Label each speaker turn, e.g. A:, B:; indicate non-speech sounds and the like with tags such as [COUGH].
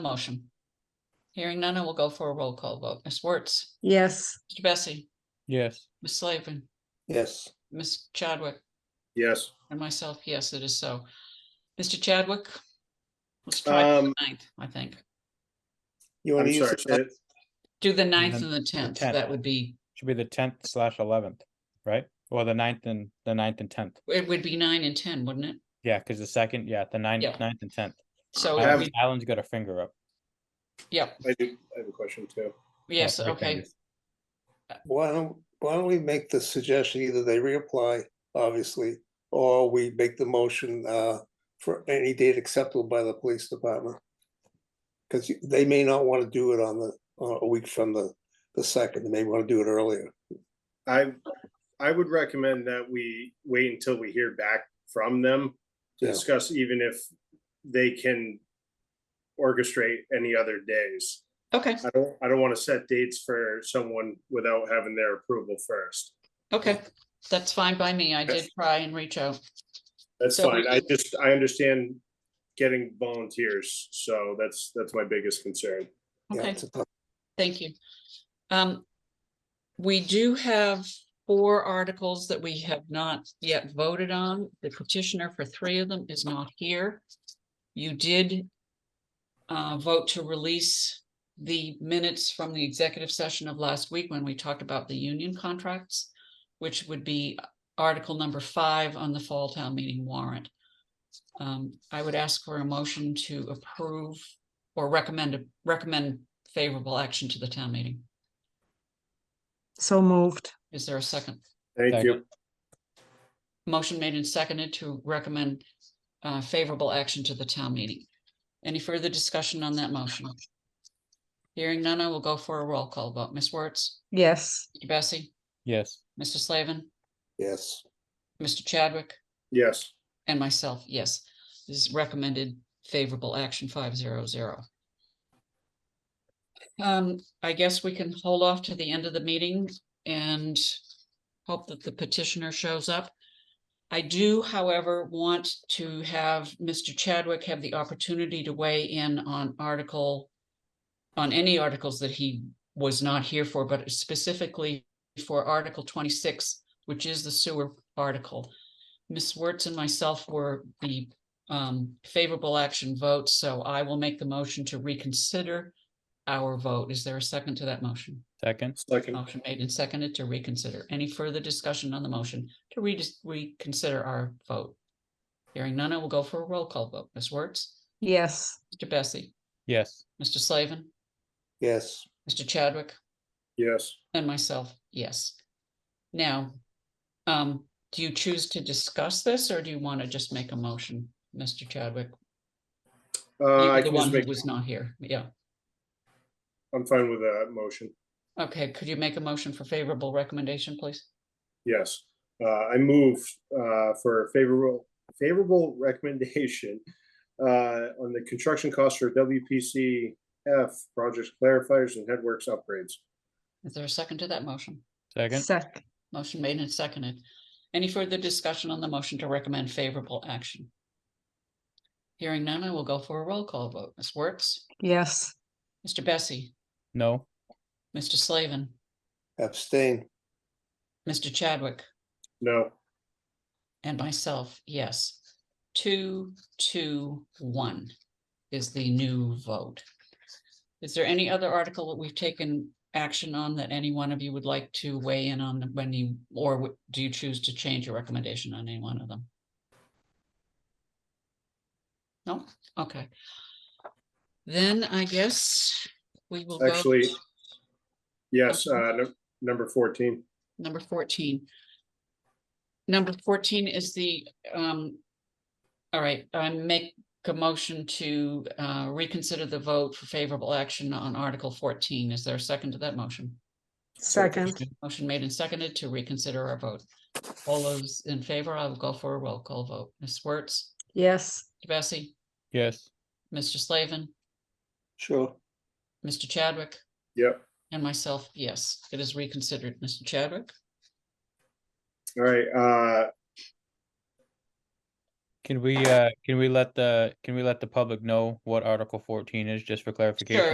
A: motion? Hearing none, I will go for a roll call vote. Ms. Wertz,
B: yes,
A: Mr. Bessie,
C: yes,
A: Ms. Slavin,
D: yes,
A: Ms. Chadwick,
E: Yes,
A: and myself, yes, it is so. Mr. Chadwick? Let's try for the
E: Um,
A: ninth, I think.
D: you want
E: I'm
D: to use
E: sorry.
D: the
E: say
D: ninth?
E: it-
A: Do the ninth
C: then
A: and the tenth,
C: 10th.
A: that would be,
C: should be the tenth slash eleventh, right? Or the ninth and, the ninth and tenth,
A: it would be nine and ten, wouldn't it?
C: yeah, cause the second, yeah, the ninth,
A: Yeah.
C: ninth and tenth.
A: So,
E: I
A: it
E: have-
A: would be-
C: Alan's got a finger up.
A: yep,
E: I do, I have a question too.
A: yes,
C: three
A: okay,
C: fingers.
D: Why don't, why don't we make the suggestion, either they reapply, obviously, or we make the motion uh for any date acceptable by the police department? Because they may not want to do it on the, uh, a week from the, the second, they may want to do it earlier.
E: I, I would recommend that we wait until we hear back from them to
D: Yeah.
E: discuss even if they can orchestrate any other days.
A: okay,
E: I don't, I don't want to set dates for someone without having their approval first.
A: okay. That's fine by me. I did try and reach out.
E: That's
A: So
E: fine.
A: we-
E: I just, I understand getting volunteers, so that's, that's my biggest concern.
D: Yeah,
A: Okay.
D: it's a tough-
A: Thank you. Um, we do have four articles that we have not yet voted on. The petitioner for three of them is not here. You did uh, vote to release the minutes from the executive session of last week when we talked about the union contracts, which would be article number five on the fall town meeting warrant. Um, I would ask for a motion to approve or recommend, recommend favorable action to the town meeting.
B: so moved,
A: Is there a second?
E: Thank you.
A: Motion made and seconded to recommend uh, favorable action to the town meeting. Any further discussion on that motion? Hearing none, I will go for a roll call vote. Ms. Wertz,
B: yes,
A: Mr. Bessie,
C: Yes,
A: Mr. Slavin,
D: Yes,
A: Mr. Chadwick,
E: Yes,
A: and myself, yes. This is recommended favorable action five zero zero. Um, I guess we can hold off to the end of the meeting and hope that the petitioner shows up. I do, however, want to have Mr. Chadwick have the opportunity to weigh in on article on any articles that he was not here for, but specifically for Article twenty-six, which is the sewer article. Ms. Wertz and myself were the um favorable action vote, so I will make the motion to reconsider our vote. Is there a second to that motion?
C: second,
E: second,
A: Motion made and seconded to reconsider. Any further discussion on the motion to re- reconsider our vote? Hearing none, I will go for a roll call vote. Ms. Wertz,
B: yes,
A: Mr. Bessie,
C: yes,
A: Mr. Slavin,
D: yes,
A: Mr. Chadwick,
E: yes.
A: and myself, yes. Now, um, do you choose to discuss this or do you want to just make a motion, Mr. Chadwick? You
E: Uh,
A: were
E: I
A: The
E: can just
A: one who
E: make,
A: was not here, yeah.
E: I'm fine with that motion.
A: Okay, could you make a motion for favorable recommendation, please?
E: Yes, uh, I move, uh, for favorable, favorable recommendation. [LAUGHS] Uh, on the construction costs for WPCF projects clarifiers and headworks upgrades.
A: Is there a second to that motion?
C: second,
B: sec,
A: Motion made and seconded. Any further discussion on the motion to recommend favorable action? Hearing none, I will go for a roll call vote. Ms. Wertz,
B: yes,
A: Mr. Bessie,
C: no,
A: Mr. Slavin,
D: abstain,
A: Mr. Chadwick,
E: No,
A: and myself, yes. Two, two, one is the new vote. Is there any other article that we've taken action on that any one of you would like to weigh in on when you, or w- do you choose to change your recommendation on any one of them? No, okay. Then I guess we will go.
E: Actually-
A: to
E: yes, uh, num- number fourteen.
A: Number fourteen. Number fourteen is the, um, all right, I make a motion to uh, reconsider the vote for favorable action on Article fourteen. Is there a second to that motion?
B: second,
A: Motion made and seconded to reconsider our vote. All those in favor, I will go for a roll call vote. Ms. Wertz,
B: yes,
A: Bessie,
C: yes,
A: Mr. Slavin,
D: sure,
A: Mr. Chadwick,
E: Yep.
A: and myself, yes, it is reconsidered. Mr. Chadwick?
E: All right, uh,
C: Can we, uh, can we let the, can we let the public know what Article fourteen is, just for clarification?